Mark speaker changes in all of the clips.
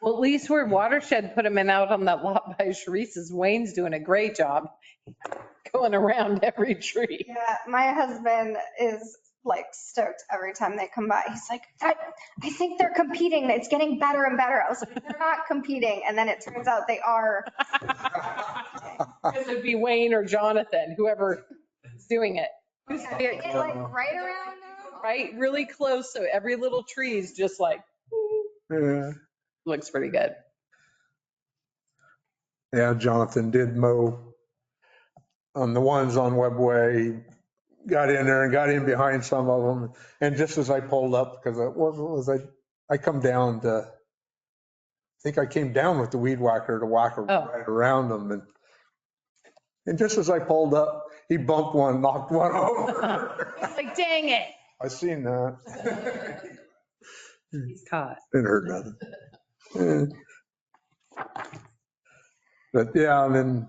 Speaker 1: Well, at least where Watershed put them in out on that lot by Sharice's, Wayne's doing a great job going around every tree.
Speaker 2: Yeah, my husband is like stoked every time they come by. He's like, I, I think they're competing. It's getting better and better. I was like, they're not competing. And then it turns out they are.
Speaker 1: Because it'd be Wayne or Jonathan, whoever is doing it,
Speaker 2: They get like right around now.
Speaker 1: right? Really close, so every little tree is just like,
Speaker 3: Yeah,
Speaker 1: looks pretty good.
Speaker 3: Yeah, Jonathan did mow on the ones on Webway, got in there and got in behind some of them. And just as I pulled up, because it was, was I, I come down to, I think I came down with the weed whacker to whack
Speaker 1: Oh.
Speaker 3: right around them and, and just as I pulled up, he bumped one, knocked one over.
Speaker 1: It's like, dang it,
Speaker 3: I seen that.
Speaker 1: he's caught.
Speaker 3: Didn't hurt nothing. Yeah. But yeah, and then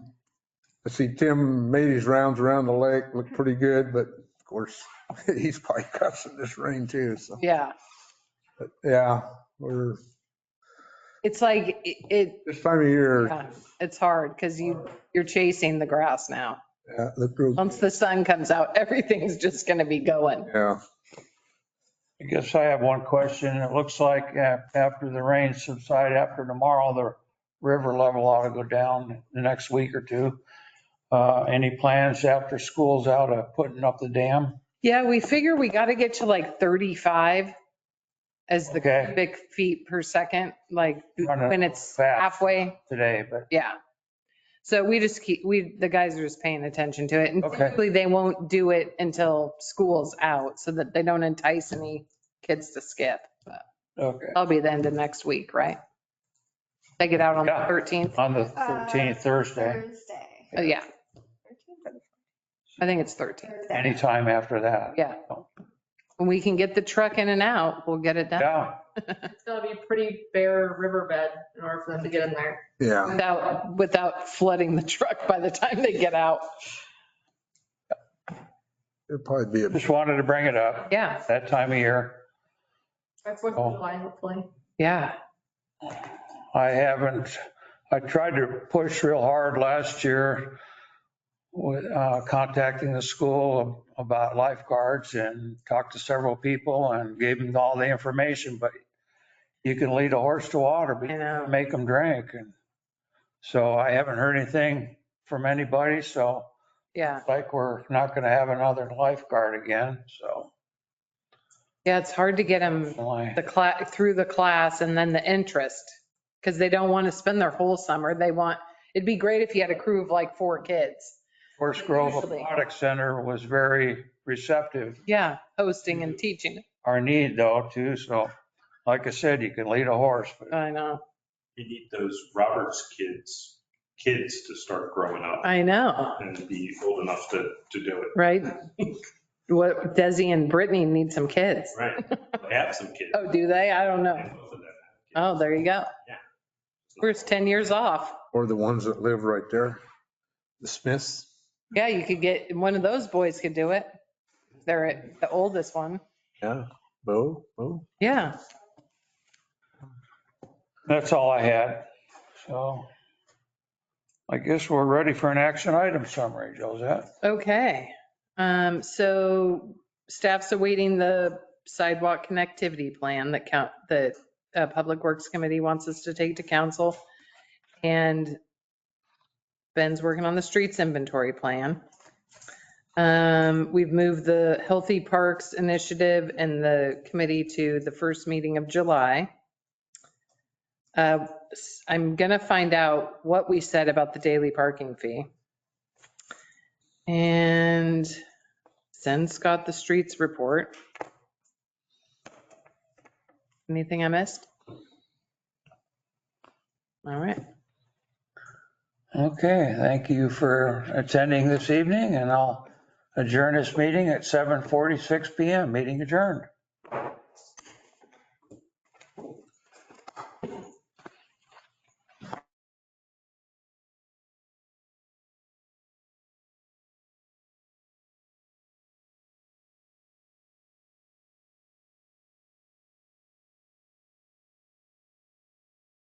Speaker 3: I see Tim made his rounds around the lake, looked pretty good, but of course, he's probably cussing this rain too, so,
Speaker 1: Yeah,
Speaker 3: but yeah, we're,
Speaker 1: it's like, it, it-
Speaker 3: this time of year,
Speaker 1: yeah, it's hard because you, you're chasing the grass now.
Speaker 3: yeah, looked real,
Speaker 1: Once the sun comes out, everything's just going to be going.
Speaker 3: yeah.
Speaker 4: I guess I have one question. It looks like a- after the rains subside, after tomorrow, the river level ought to go down the next week or two. Uh, Any plans after school's out of putting up the dam?
Speaker 1: Yeah, we figure we got to get to like 35 as the
Speaker 4: Okay.
Speaker 1: cubic feet per second, like
Speaker 4: Run it
Speaker 1: when it's
Speaker 4: fast.
Speaker 1: halfway.
Speaker 4: Today, but
Speaker 1: Yeah. So we just keep, we, the guys are just paying attention to it. And
Speaker 4: Okay.
Speaker 1: typically they won't do it until school's out so that they don't entice any kids to skip. But
Speaker 4: okay,
Speaker 1: That'll be the end of next week, right? They get out on the
Speaker 4: Yeah.
Speaker 1: 13th.
Speaker 4: on the 13th, Thursday,
Speaker 2: Thursday.
Speaker 1: Oh, yeah. I think it's 13th.
Speaker 2: Thursday.
Speaker 4: anytime after that.
Speaker 1: Yeah. When we can get the truck in and out, we'll get it done.
Speaker 4: Yeah,
Speaker 5: It's gonna be a pretty bare riverbed in order for them to get in there.
Speaker 3: Yeah,
Speaker 1: Without, without flooding the truck by the time they get out.
Speaker 3: it'd probably be, a
Speaker 4: just wanted to bring it up.
Speaker 1: Yeah,
Speaker 4: That time of year.
Speaker 5: By Fourth
Speaker 4: Oh.
Speaker 5: of July, hopefully.
Speaker 1: yeah.
Speaker 4: I haven't, I tried to push real hard last year with uh, contacting the school about lifeguards and talked to several people and gave them all the information, but you can lead a horse to water, but you
Speaker 1: know.
Speaker 4: can't make them drink. And so I haven't heard anything from anybody, so
Speaker 1: Yeah,
Speaker 4: like we're not going to have another lifeguard again, so.
Speaker 1: yeah, it's hard to get them
Speaker 4: I-
Speaker 1: the class, through the class and then the interest. Because they don't want to spend their whole summer. They want, it'd be great if you had a crew of like four kids.
Speaker 4: Forest Grove
Speaker 1: Usually.
Speaker 4: Aquatic Center was very receptive
Speaker 1: Yeah, hosting and teaching.
Speaker 4: our need though too. So like I said, you can lead a horse, but
Speaker 1: I know,
Speaker 6: you need those Roberts kids, kids to start growing up
Speaker 1: I know,
Speaker 6: and be old enough to, to do it.
Speaker 1: right? What, Desi and Brittany need some kids.
Speaker 6: Right. They have some kids.
Speaker 1: Oh, do they? I don't know.
Speaker 6: And both of them have kids.
Speaker 1: Oh, there you go.
Speaker 6: Yeah.
Speaker 1: We're just 10 years off.
Speaker 3: or the ones that live right there, the Smiths.
Speaker 1: Yeah, you could get, one of those boys could do it. They're the oldest one.
Speaker 3: Yeah, Bo, Bo.
Speaker 1: Yeah,
Speaker 4: that's all I had. So I guess we're ready for an action item summary, Josette.
Speaker 1: okay. Um, so staff's awaiting the sidewalk connectivity plan that count, that uh, Public Works Committee wants us to take to council. And Ben's working on the streets inventory plan. Um, we've moved the Healthy Parks Initiative and the committee to the first meeting of July. Uh, s- I'm gonna find out what we said about the daily parking fee. And send Scott the streets report. Anything I missed? All right,
Speaker 4: Okay, thank you for attending this evening and I'll adjourn this meeting at 7:46 PM. Meeting adjourned.